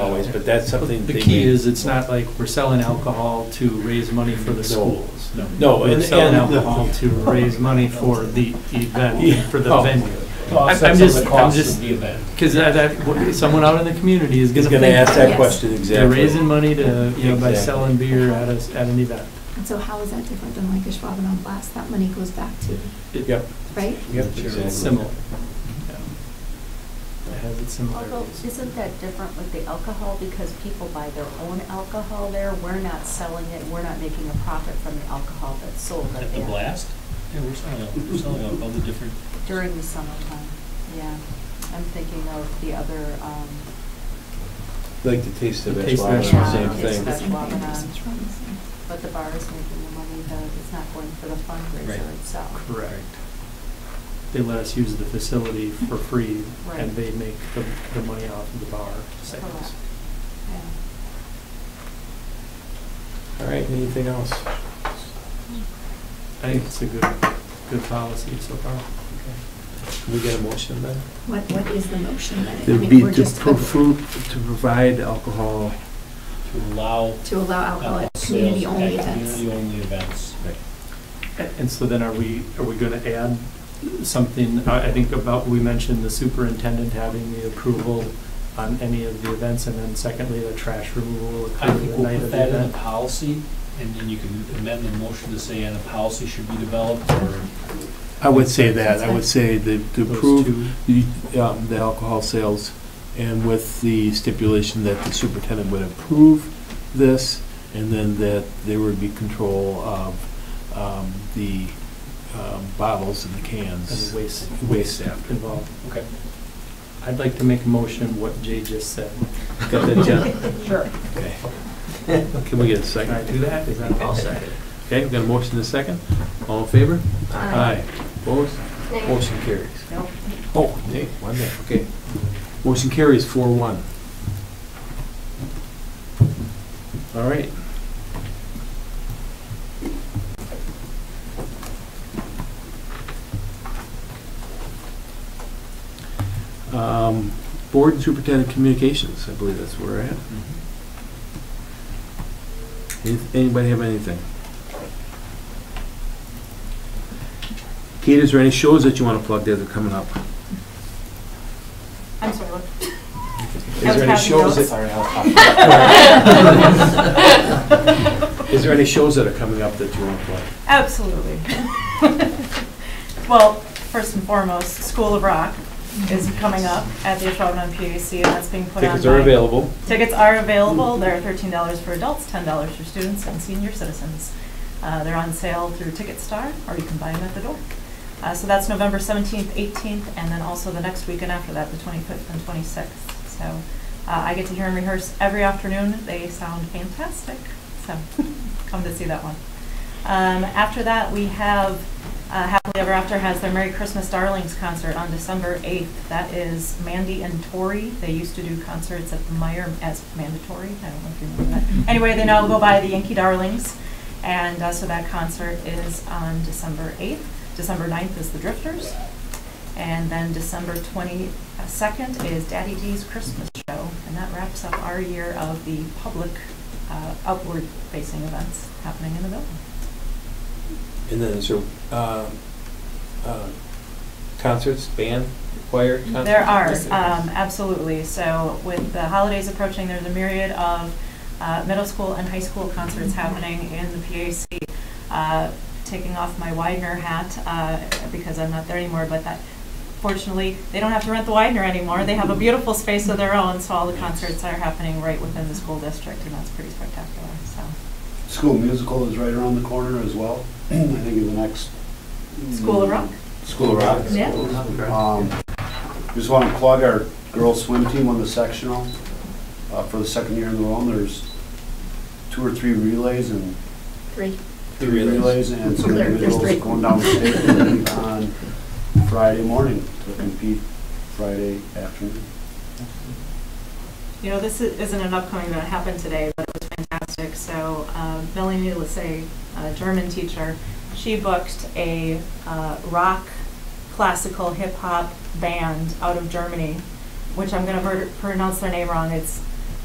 but that's something. The they key may- is, it's not like we're selling alcohol to raise money for the schools. No, We're and, selling and- alcohol to raise money for the Yeah. event, for the Oh. venue. To offset I'm some of just- the I'm costs just- of the event. Because that, that, someone out in the community is He's gonna gonna ask think, that Yes. question they're exactly. raising money to, you know, by Exactly. selling beer at a, at an event. And so how is that different than like a Schwab on blast? That money goes back to, It- Yep. right? Yep, exactly. It's similar. Yeah. It has its Although, similarities. isn't that different with the alcohol, because people buy their own alcohol there, we're not selling it, we're not making a profit from the alcohol that's sold at At the that- blast? Yeah, we're selling, al- we're selling all the different. During the summertime, yeah. I'm thinking of the other, um, Like the taste of The taste of Ashwaubenon, Ashwaubenon, same it's thing. the- That's Schwab and It's I. from the same. but the bar is making the money, the, it's not going for the Right. fundraiser itself. Correct. They let us use the facility for free, Right. and they make the, the money off of the bar sales. Correct. Yeah. All right, anything else? I think it's a good, good policy so far. Can we get a motion then? What, what is the motion then? I It would mean, be we're to just- profu- to provide alcohol. To allow To allow alcohol alcohol at sales at community-only events. community-only events. A- And so then are we, are we gonna add something, I, I think about, we mentioned the superintendent having the approval on any of the events, and then secondly, the trash removal will I occur think the we'll night put of the that in the event. policy, and then you can amend the motion to say, and a policy should be developed, or I would say that, I would say that to Those approve two- the um, the alcohol sales and with the stipulation that the superintendent would approve this and then that there would be control of um, the um, bottles and the And cans. the waste. Waste after. Involved. Okay. I'd like to make a motion what Jay just said. Got that, John? Sure. Okay. Can we get a Can I second? do that? Is that I'll second. Okay, we've got a motion and a second. All in favor? Aye. Opposed? Motion carries. Nope. Oh, nay, one nay, okay. Motion carries four one. All right. Um, Board and Superintendent Communications, I believe that's where we're at. Mm-hmm. Any- Anybody have anything? Kate, is there any shows that you want to plug that are coming up? I'm sorry, what? Is I was there any passing shows notes. that? Sorry, Is there any shows that are coming up that you want to play? Absolutely. Well, first and foremost, School of Rock is coming up at the Ashwaubenon PAC, and that's being put on by... Tickets are available. Tickets are available. They're thirteen dollars for adults, ten dollars for students and senior citizens. Uh, they're on sale through TicketStar, or you can buy them at the door. Uh, so that's November seventeenth, eighteenth, and then also the next weekend after that, the twenty-fifth and twenty-sixth. So, uh, I get to hear them rehearse every afternoon. They sound fantastic, so come to see that one. Um, after that, we have, uh, Happily Ever After has their Merry Christmas Darlings concert on December 8th. That is Mandy and Tori. They used to do concerts at the Meyer as mandatory. I don't know if you remember that. Anyway, they now go by the Yankee Darlings. And uh, so that concert is on December 8th. December 9th is the Drifters. And then December 22nd is Daddy D's Christmas Show. And that wraps up our year of the public uh, outward-facing events happening in the building. And then is there uh, uh, concerts, band, choir? concerts? There are, um, absolutely. So with the holidays approaching, there's a myriad of uh, middle school and high school concerts happening in the PAC. Uh, Taking off my Widener hat, uh, because I'm not there anymore, but that, fortunately, they don't have to rent the Widener anymore. They have a beautiful space of their own, so all the concerts are happening right within the school district, and that's pretty spectacular, so. School musical is right around the corner as well, I think in the next. School of Rock? School of Rock. Yeah. Um, Just want to plug our girls swim team on the sectional. Uh, For the second year in a row, there's two or three relays and Three. three Relays. relays and some There- there's individuals three. going down the state on Friday morning to compete Friday afternoon. You know, this i- isn't an upcoming event, it happened today, but it was fantastic. So uh, Melanie Lassay, a German teacher, she booked a uh, rock, classical, hip-hop band out of Germany, which I'm going to pronounce their name wrong. It's